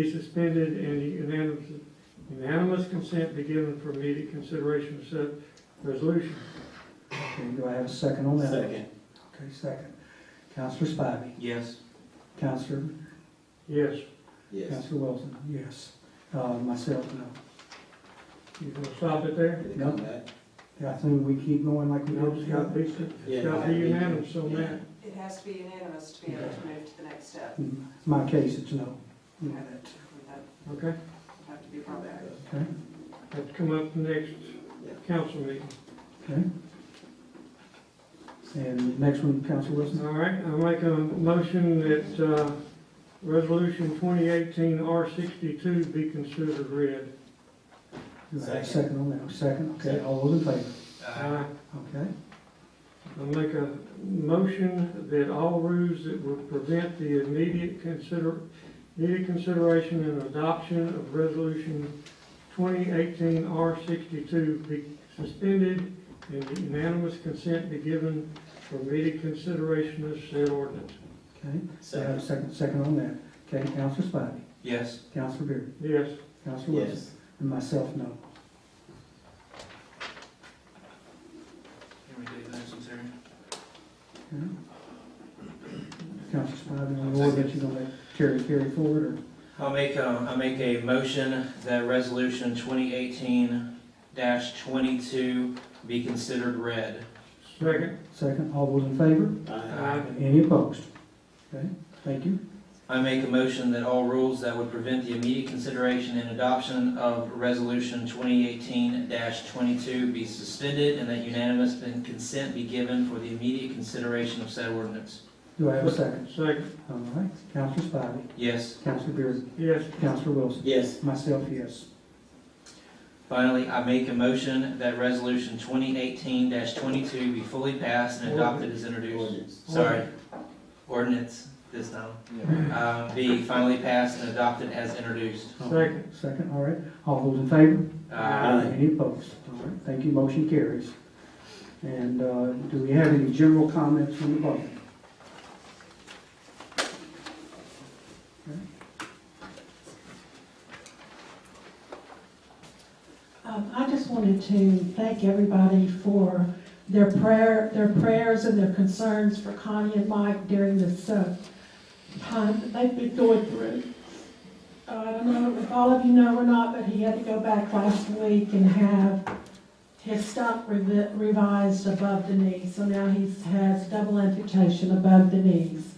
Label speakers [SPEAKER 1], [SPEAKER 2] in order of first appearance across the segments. [SPEAKER 1] be suspended and unanimous, unanimous consent be given for immediate consideration of said resolution.
[SPEAKER 2] Okay, do I have a second on that?
[SPEAKER 3] Second.
[SPEAKER 2] Okay, second. Counselor Spivey,
[SPEAKER 3] Yes.
[SPEAKER 2] Counselor,
[SPEAKER 1] Yes,
[SPEAKER 3] Yes.
[SPEAKER 2] Counselor Wilson, yes. Uh, myself, no.
[SPEAKER 1] you gonna stop it there?
[SPEAKER 3] Did it come back?
[SPEAKER 2] Yeah, I think we keep going like we
[SPEAKER 1] No,
[SPEAKER 2] did.
[SPEAKER 1] it's gotta be, it's gotta be unanimous on that.
[SPEAKER 4] It has to be unanimous to be able to move to the next step.
[SPEAKER 2] In My case, it's no. You know that,
[SPEAKER 4] Would that
[SPEAKER 1] Okay,
[SPEAKER 4] have to be brought back?
[SPEAKER 2] okay,
[SPEAKER 1] that's come up next council meeting.
[SPEAKER 2] okay. And next one, Counselor Wilson.
[SPEAKER 1] All right, I'll make a motion that, uh, resolution twenty eighteen R sixty-two be considered read.
[SPEAKER 2] Do I have a
[SPEAKER 3] Second.
[SPEAKER 2] second on that? Second, okay, all those in favor?
[SPEAKER 3] Uh-huh.
[SPEAKER 1] Aye.
[SPEAKER 2] Okay,
[SPEAKER 1] I'll make a motion that all rules that would prevent the immediate consider, immediate consideration and adoption of resolution twenty eighteen R sixty-two be suspended and unanimous consent be given for immediate consideration of said ordinance.
[SPEAKER 2] okay. Do I have a second, second on that? Okay, Counselor Spivey,
[SPEAKER 3] Yes.
[SPEAKER 2] Counselor Beard,
[SPEAKER 1] Yes,
[SPEAKER 2] Counselor Wilson,
[SPEAKER 3] Yes.
[SPEAKER 2] and myself, no.
[SPEAKER 3] Can we do those in turn?
[SPEAKER 2] Okay. Counselor Spivey, on the order that you're gonna let carry, carry forward, or?
[SPEAKER 3] I'll make, um, I'll make a motion that resolution twenty eighteen twenty-two be considered read.
[SPEAKER 1] second.
[SPEAKER 2] Second, all those in favor?
[SPEAKER 3] Uh-huh.
[SPEAKER 1] Aye.
[SPEAKER 2] Any opposed? Okay, thank you.
[SPEAKER 3] I make a motion that all rules that would prevent the immediate consideration and adoption of resolution twenty eighteen twenty-two be suspended and that unanimous consent be given for the immediate consideration of said ordinance.
[SPEAKER 2] Do I have a second?
[SPEAKER 1] Second,
[SPEAKER 2] All right, Counselor Spivey,
[SPEAKER 3] Yes.
[SPEAKER 2] Counselor Beard,
[SPEAKER 1] yes,
[SPEAKER 2] Counselor Wilson,
[SPEAKER 3] Yes.
[SPEAKER 2] myself, yes.
[SPEAKER 3] Finally, I make a motion that resolution twenty eighteen twenty-two be fully passed and adopted as introduced. Sorry, ordinance this time. Um, be finally passed and adopted as introduced.
[SPEAKER 1] second.
[SPEAKER 2] Second, all right, all those in favor?
[SPEAKER 3] Uh,
[SPEAKER 2] Any opposed? All right, thank you, motion carries. And, uh, do we have any general comments from the public?
[SPEAKER 5] Um, I just wanted to thank everybody for their prayer, their prayers and their concerns for Connie and Mike during this, uh, time that they've been going through. Uh, I don't know if all of you know or not, but he had to go back last week and have his stump revi- revised above the knee. So now he's, has double amputation above the knees.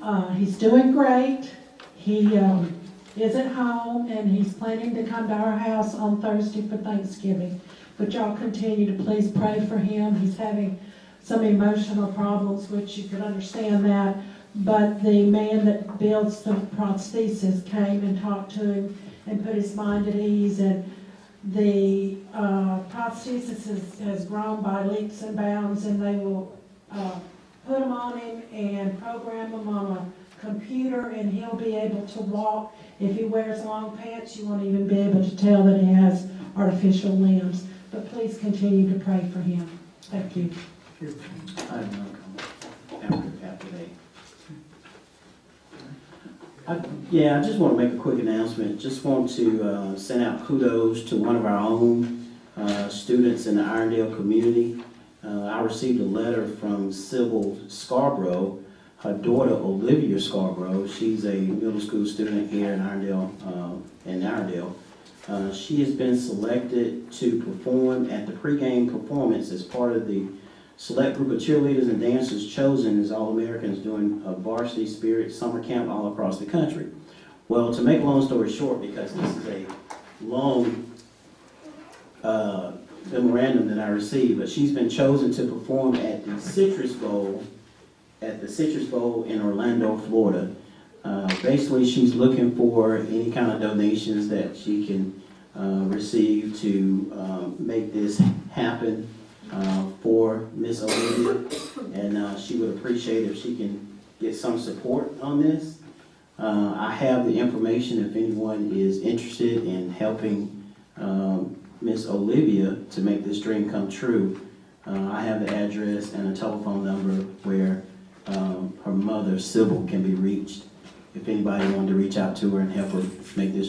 [SPEAKER 5] Uh, he's doing great. He, um, is at home, and he's planning to come to our house on Thursday for Thanksgiving. But y'all continue to please pray for him. He's having some emotional problems, which you can understand that. But the man that builds the prosthesis came and talked to him and put his mind at ease. And the uh, prosthesis has, has grown by leaps and bounds, and they will uh, put them on him and program them on a computer, and he'll be able to walk if he wears long pants, you won't even be able to tell that he has artificial limbs. But please continue to pray for him. Thank you.
[SPEAKER 6] I have no comment after, after they. I- Yeah, I just want to make a quick announcement. Just want to uh, send out kudos to one of our own uh, students in the Irondale community. Uh, I received a letter from Sybil Scarborough, her daughter Olivia Scarborough. She's a middle school student here in Irondale, uh, in Irondale. Uh, She has been selected to perform at the pregame performance as part of the select group of cheerleaders and dancers chosen as All-Americans doing a varsity spirit summer camp all across the country. Well, to make long story short, because this is a long uh, memorandum that I received, but she's been chosen to perform at the Citrus Bowl, at the Citrus Bowl in Orlando, Florida. Uh, Basically, she's looking for any kind of donations that she can uh, receive to uh, make this happen uh, for Miss Olivia, and uh, she would appreciate if she can get some support on this. Uh, I have the information if anyone is interested in helping um, Miss Olivia to make this dream come true. Uh, I have the address and a telephone number where um, her mother, Sybil, can be reached if anybody wanted to reach out to her and help her make this